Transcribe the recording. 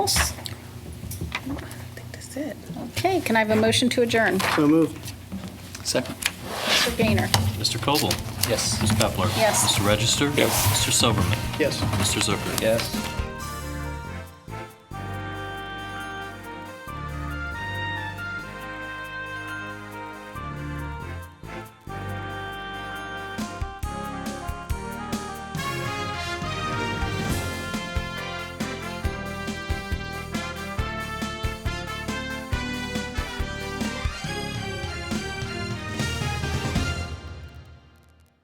Okay, can I have a motion to adjourn? So moved. Second. Mr. Gaynor? Mr. Coble? Yes. Ms. Pepler? Yes. Mr. Register? Yes. Mr. Soberman? Yes. Mr. Zucker? Yes.